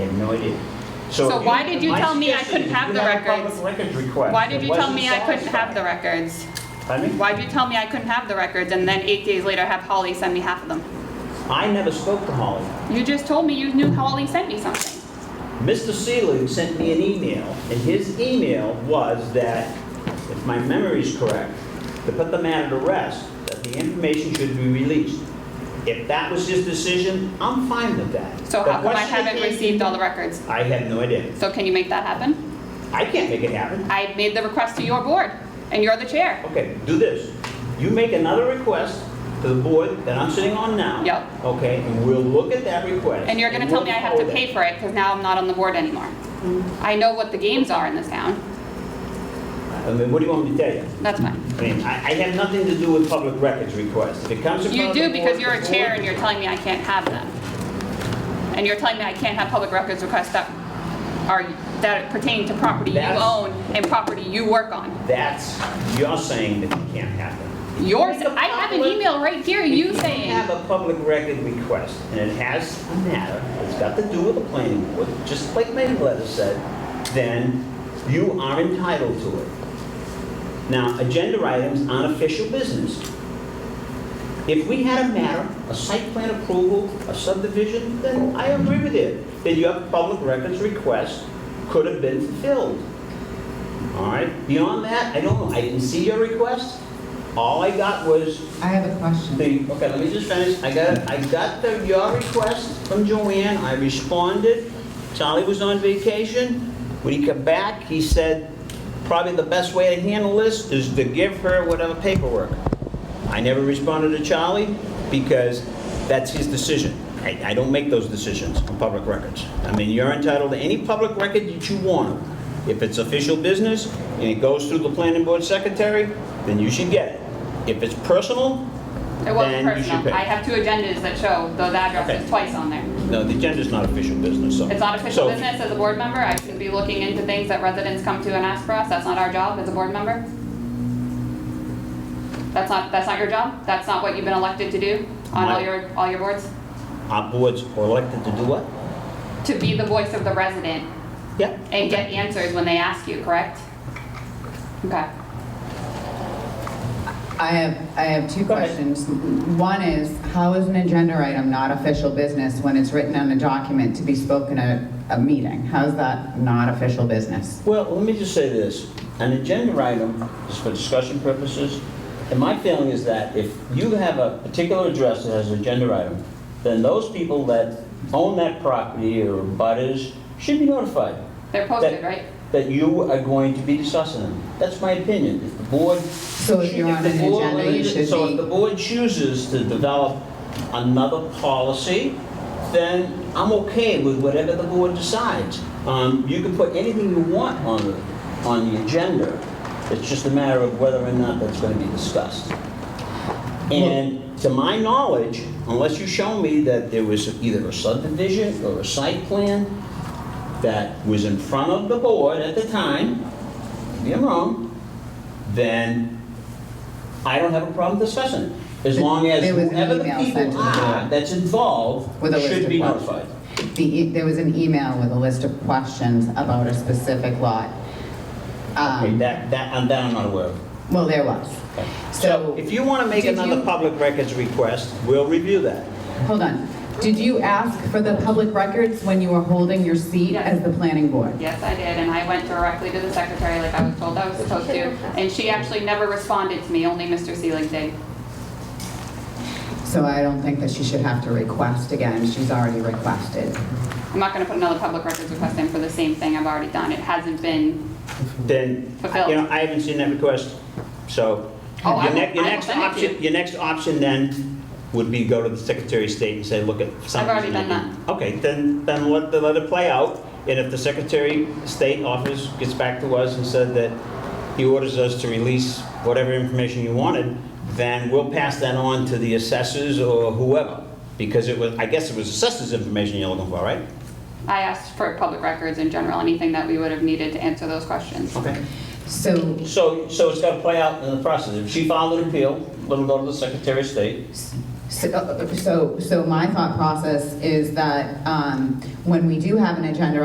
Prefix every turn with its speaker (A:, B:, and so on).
A: we need.
B: So
A: if
B: why did you
A: my
B: tell me I
A: suggestion
B: couldn't
A: is
B: have
A: you
B: the
A: had a public
B: records?
A: records request
B: Why did
A: that
B: you tell
A: wasn't
B: me I couldn't have the
A: satisfied.
B: records?
A: Pardon me?
B: Why'd you tell me I couldn't have the records and then eight days later have Holly send me half of them?
A: I never spoke to Holly.
B: You just told me you knew Holly sent me something.
A: Mr. Seelig sent me an email, and his email was that, if my memory is correct, to put the matter to rest, that the information should be released. If that was his decision, I'm fine with that.
B: So
A: The
B: how come I
A: question
B: haven't
A: is-
B: received all the records?
A: I have no idea.
B: So can you make that happen?
A: I can't make it happen.
B: I made the request to your board, and you're the chair.
A: Okay, do this. You make another request to the board that I'm sitting on now.
B: Yep.
A: Okay, and we'll look at that request.
B: And you're gonna tell me I have to pay for it, because now I'm not on the board anymore. I know what the games are in this town.
A: I mean, what do you want me to tell you?
B: That's fine.
A: I mean, I, I have nothing to do with public records requests. If it comes in
B: You
A: front of the
B: do
A: board,
B: because you're a
A: the
B: chair
A: board-
B: and you're telling me I can't have them. And you're telling me I can't have public records requests that are, that pertain to property you
A: That's-
B: own and property you work on.
A: That's, you're saying that it can't happen.
B: Yours,
A: Make a
B: I have an
A: public-
B: email right here,
A: If
B: you
A: You have
B: saying,
A: a public record request, and it has a matter, it's got to do with the planning board, just like my letter said, then you are entitled to it. Now, agenda items aren't official business. If we had a matter, a site plan approval, a subdivision, then I agree with it, that your public records request could have been fulfilled. All right, beyond that, I don't know, I didn't see your request. All I got was
C: I have a question.
A: the, okay, let me just finish. I got, I got the, your request from Joanne, I responded. Charlie was on vacation. When he came back, he said, probably the best way to handle this is to give her whatever paperwork. I never responded to Charlie because that's his decision. I, I don't make those decisions on public records. I mean, you're entitled to any public record that you want. If it's official business and it goes through the planning board secretary, then you should get it. If it's personal,
B: it wasn't
A: then you should
B: personal.
A: pay.
B: I have two agendas that show those addresses
A: Okay.
B: twice on there.
A: No, the agenda's not official business, so.
B: It's not
A: so-
B: official business as a board member, I shouldn't be looking into things that residents come to and ask for us, that's not our job as a board member. That's not, that's not your job? That's not what you've been elected to do on
A: My-
B: all your, all your boards?
A: Our boards are elected to do what?
B: to be the voice of the resident
A: Yeah.
B: and get answers when they ask you, correct? Okay.
C: I have, I have two
A: Go ahead.
C: questions. One is, how is an agenda item not official business when it's written on a document to be spoken at a meeting? How is that not official business?
A: Well, let me just say this. An agenda item is for discussion purposes, and my feeling is that if you have a particular address that has an agenda item, then those people that own that property or butters should be notified
B: They're posted, right?
A: that you are going to be discussing them. That's my opinion. If the board. So
C: if you're on an agenda, you should
A: So if
C: be-
A: the board chooses to develop another policy, then I'm okay with whatever the board decides. Um, You can put anything you want on the, on the agenda. It's just a matter of whether or not that's going to be discussed. And to my knowledge, unless you show me that there was either a subdivision or a site plan that was in front of the board at the time, maybe I'm wrong, then I don't have a problem discussing it. As long as
C: There was an
A: whoever the
C: email
A: people
C: sent to the
A: are
C: board.
A: that's involved
C: With a list
A: should
C: of
A: be
C: questions.
A: notified.
C: The, e- there was an email with a list of questions about a specific lot.
A: Okay,
C: Um,
A: that, that, and that I'm not aware of.
C: Well, there was.
A: Okay.
C: So,
A: If you want to make
C: did
A: another
C: you-
A: public records request, we'll review that.
C: hold on. Did you ask for the public records when you were holding your seat
B: Yes.
C: as the planning board?
B: Yes, I did, and I went directly to the secretary like I was told I was supposed to, and she actually never responded to me, only Mr. Seelig did.
C: So I don't think that she should have to request again. She's already requested.
B: I'm not gonna put another public records request in for the same thing I've already done, it hasn't been,
A: then, you know, I haven't seen that request, so.
B: Oh, I
A: your
B: will-
A: ne- your
B: I will
A: next
B: send it to
A: option-
B: you.
A: Your next option then would be go to the Secretary of State and say, look, at something's...
B: already done
A: gonna be-" Okay, then, then let, the- let it play out, and if the Secretary of State office gets back to us and said that he orders us to release whatever information you wanted, then we'll pass that on to the assessors or whoever, because it was, I guess it was assessors information you're looking for, right?
B: I asked for public records in general, anything that we would have needed to answer those questions.
A: Okay.
C: So
A: So, so it's got to play out in the process. If she filed an appeal, it'll go to the Secretary of State.
C: uh, So, so my thought process is that um, when we do have an agenda